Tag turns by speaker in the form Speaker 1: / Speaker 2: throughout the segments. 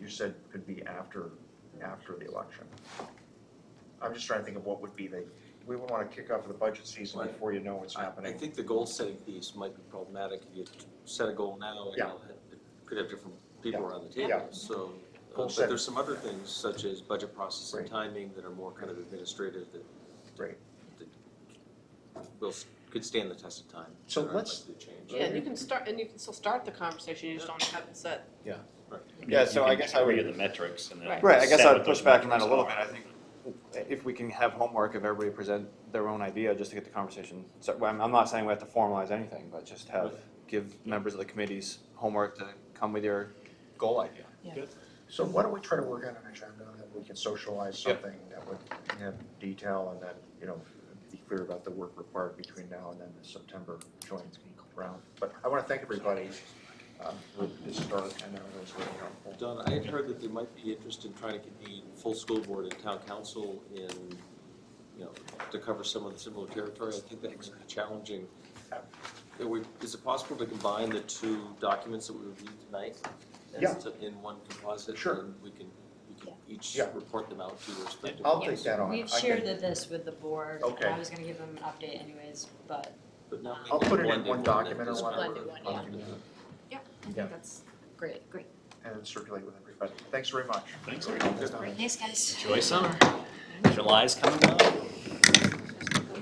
Speaker 1: you said could be after, after the election. I'm just trying to think of what would be the, we would wanna kick off the budget season
Speaker 2: Right.
Speaker 1: before you know what's
Speaker 2: I- I
Speaker 1: happening.
Speaker 2: think the goal-setting piece might be problematic. You set a goal now, and
Speaker 1: Yeah.
Speaker 2: you'll have- could have different people
Speaker 1: Yeah.
Speaker 2: around the
Speaker 1: Yeah.
Speaker 2: table, so. uh,
Speaker 1: Goal
Speaker 2: But
Speaker 1: setting.
Speaker 2: there's some other things, such as budget process and
Speaker 1: Right.
Speaker 2: timing, that are more kind of administrative that
Speaker 1: Right.
Speaker 2: will, s- could stand the test of time.
Speaker 1: So
Speaker 2: that are
Speaker 1: let's-
Speaker 2: likely to change.
Speaker 3: Yeah, and you can start, and you can still start the conversation, you just don't have it set.
Speaker 4: Yeah, so I guess I would-
Speaker 5: Give you the metrics and then.
Speaker 3: Right.
Speaker 4: Right, I guess
Speaker 5: set
Speaker 4: I'd
Speaker 5: what
Speaker 4: push
Speaker 5: those
Speaker 4: back on that
Speaker 5: metrics
Speaker 4: a little
Speaker 5: are.
Speaker 4: bit, I think if we can have homework, if everybody present their own idea, just to get the conversation, so, well, I'm, I'm not saying we have to formalize anything, but just have, give members of the committees homework to come with your goal idea.
Speaker 1: So why don't we try to work on an agenda that we can socialize
Speaker 4: Yeah.
Speaker 1: something that would have detail and then, you know, be clear about the work required between now and then the September joint round. But I wanna thank everybody, um, for this start, I know it was really helpful.
Speaker 2: Don, I had heard that there might be interest in trying to convene full school board and town council in, you know, to cover some of the similar territory. I think that might be challenging. Are we- Is it possible to combine the two documents that we reviewed tonight? as
Speaker 1: Yeah.
Speaker 2: to- In one composite?
Speaker 1: Sure.
Speaker 2: And we can, we can each
Speaker 1: Yeah.
Speaker 2: report them out to your respective.
Speaker 1: I'll take
Speaker 2: boards.
Speaker 1: that on.
Speaker 6: We've
Speaker 1: I can-
Speaker 6: shared the- this with the board, and
Speaker 1: Okay.
Speaker 6: I was gonna give them an update anyways, but
Speaker 2: But now we
Speaker 1: I'll
Speaker 2: can
Speaker 1: put it in
Speaker 2: blend
Speaker 1: one
Speaker 2: that
Speaker 1: document or
Speaker 2: is-
Speaker 1: whatever.
Speaker 6: Blended one,
Speaker 1: I'll
Speaker 6: yeah.
Speaker 1: do that.
Speaker 6: I think
Speaker 1: Yeah.
Speaker 6: that's great, great.
Speaker 1: and circulate with everybody. Thanks very much.
Speaker 5: Thanks,
Speaker 2: Good.
Speaker 6: Great, thanks guys.
Speaker 5: Enjoy summer. July's coming up.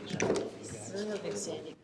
Speaker 6: This is a big Sandy.